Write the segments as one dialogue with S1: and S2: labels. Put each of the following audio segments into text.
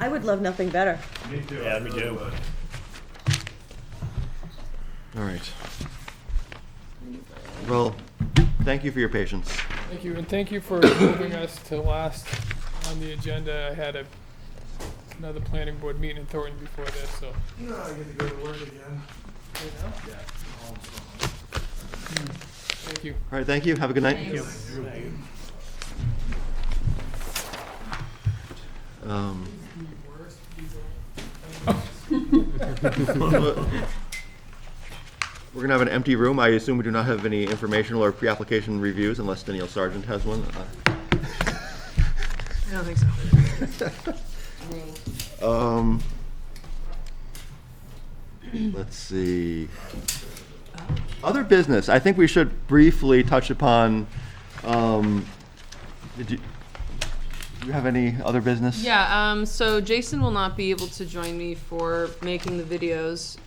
S1: I would love nothing better.
S2: Me too.
S3: Yeah, me too.
S4: All right. Well, thank you for your patience.
S5: Thank you, and thank you for moving us to last on the agenda. I had a, another planning board meeting in Thornton before this, so.
S2: No, I get to go to work again. Yeah.
S5: Thank you.
S4: All right, thank you. Have a good night. Um, We're gonna have an empty room. I assume we do not have any informational or pre-application reviews unless Danielle Sargent has one. Uh,
S6: I don't think so.
S4: Um, let's see. Other business, I think we should briefly touch upon, um, did you, do you have any other business?
S6: Yeah, um, so Jason will not be able to join me for making the videos.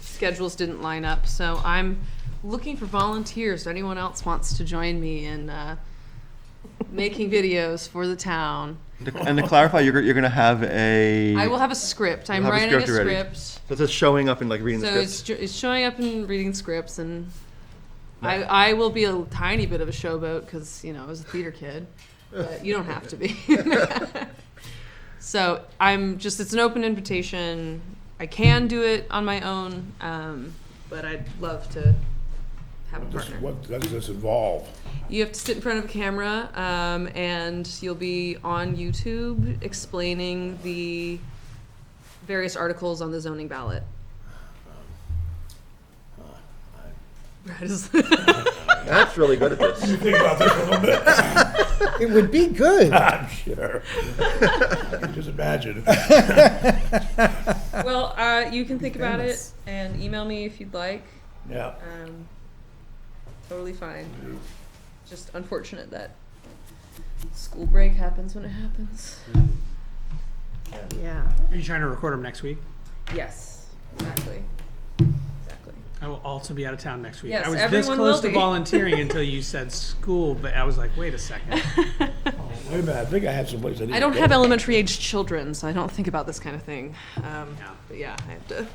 S6: Schedules didn't line up, so I'm looking for volunteers. Anyone else wants to join me in uh, making videos for the town?
S4: And to clarify, you're, you're gonna have a.
S6: I will have a script. I'm
S4: You'll have a
S6: writing a
S4: script already.
S6: script.
S4: So it's just showing up and like reading the
S6: So
S4: script.
S6: it's, ju- it's showing up and reading scripts, and I, I will be a tiny bit of a showboat because you know I was a theater kid, but you don't have to be. so I'm just it's an open invitation. I can do it on my own, um, but I'd love to have a partner.
S3: What does this involve?
S6: You have to sit in front of a camera, um, and you'll be on YouTube explaining the various articles on the zoning ballot. Brad is-
S4: That's really good at this.
S3: Think about this a little bit.
S7: It would be good.
S3: I'm sure. I can Just imagine.
S6: well, uh, you can think about it and email me if you'd like.
S3: Yeah.
S6: Um, totally fine. Just unfortunate that school break happens when it happens.
S1: Yeah.
S8: Are you trying to record them next week?
S6: Yes, exactly. Exactly.
S8: I will also be out of town next week.
S6: Yes,
S8: I was this
S6: everyone
S8: close
S6: will
S8: to
S6: be.
S8: volunteering until you said school, but I was like, wait a second.
S3: Wait a minute, I think I had someplace I didn't.
S6: I don't have elementary age children, so I don't think about this kind of thing. Um,
S8: Yeah.
S6: But yeah, I have to.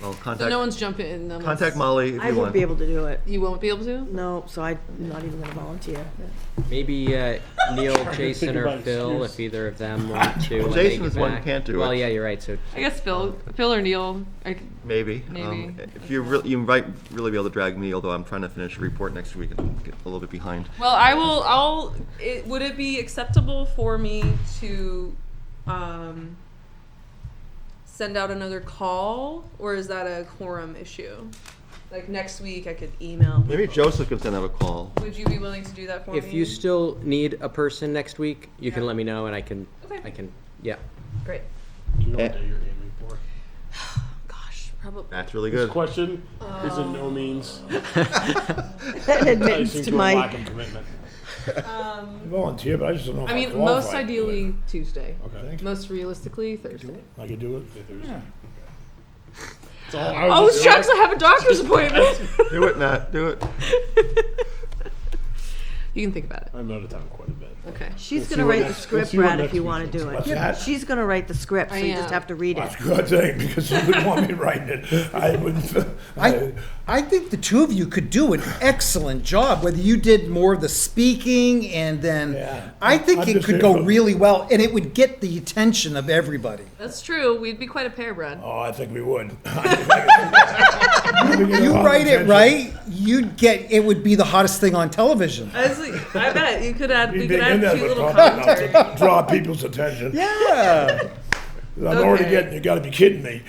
S4: Well,
S6: So
S4: contact,
S6: no one's jumping in. no one's-
S4: contact Molly if
S1: I
S4: you
S1: won't
S4: want.
S1: be able to do it.
S6: You won't be able to.
S1: No, so I'm not even gonna volunteer.
S9: Maybe uh, Neil, Jason, or
S3: about
S9: Phil, if either of them want to. when they
S4: Jason
S9: get
S4: is the one who
S9: back.
S4: can't do
S9: Well,
S4: it.
S9: yeah, you're right. So
S6: I guess Phil, Phil or Neil. I,
S4: Maybe. Um,
S6: Maybe.
S4: if you really, you might really be able to drag me, although I'm trying to finish a report next week and get a little bit behind.
S6: well, I will. I'll. It, would it be acceptable for me to um, send out another call, or is that a quorum issue? Like next week, I could email.
S4: Maybe
S6: people.
S4: Joseph can send out a call.
S6: Would you be willing to do that for me?
S9: if you still need a person next week, you can
S6: Yeah.
S9: let me know, and I can.
S6: Okay.
S9: I can. Yeah.
S6: Great.
S10: Do you know what day you're aiming for?
S6: Gosh, probably.
S4: That's really
S10: This
S4: good.
S10: question
S6: Uh,
S10: is in no means
S1: That admits
S10: enticing
S1: to
S10: to a lack
S1: my,
S10: of commitment.
S3: I Volunteer, but I just don't know if
S6: Um, I
S3: I
S6: mean,
S3: qualify.
S6: most ideally Tuesday.
S3: Okay.
S6: Most realistically Thursday.
S3: I could do it.
S10: It's all- I was
S6: Oh,
S10: just-
S6: shucks! I have a doctor's appointment.
S4: Do it, Nat, do it.
S6: you can think about it.
S10: I'm out of town quite a bit.
S6: Okay.
S1: she's
S10: see
S1: gonna
S10: what
S1: write the
S10: next- we'll
S1: script,
S10: see what
S1: Brad, if
S10: next
S1: you
S10: week
S1: wanna
S10: is.
S1: do
S3: What's
S1: it.
S3: that?
S1: She's gonna write the script, so you
S6: I
S1: just
S6: am.
S1: have to read it.
S3: That's a good thing, because you wouldn't want me writing it. I wouldn't,
S7: I,
S3: I,
S7: I think the two of you could do an excellent job, whether you did more of the speaking and then,
S3: Yeah.
S7: I think
S3: I'm
S7: it
S3: just
S7: could
S3: here
S7: go
S3: for-
S7: really well and it would get the attention of everybody.
S6: That's true. We'd be quite a pair, Brad.
S3: oh, I think we would.
S7: You
S3: You
S7: write it right, you'd get, it would be the hottest thing on television.
S6: I, was like, I bet you could add.
S3: We'd
S6: We
S3: be
S6: could
S3: in
S6: add
S3: there, but
S6: cute little
S3: probably
S6: commentary.
S3: not to draw people's attention.
S7: Yeah.
S3: I'm already
S6: Okay.
S3: getting, you gotta be kidding me.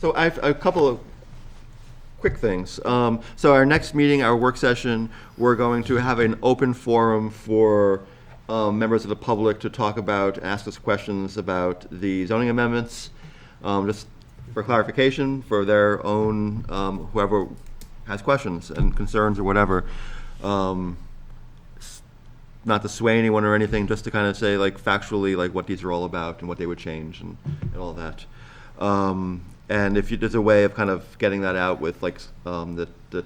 S4: So I have a couple of quick things. Um, so our next meeting, our work session, we're going to have an open forum for um, members of the public to talk about, ask us questions about the zoning amendments. Um, just for clarification, for their own, um, whoever has questions and concerns or whatever. Um, s- not to sway anyone or anything, just to kind of say like factually, like what these are all about and what they would change and, and all that. Um, and if you, there's a way of kind of getting that out with like, s- um, the, the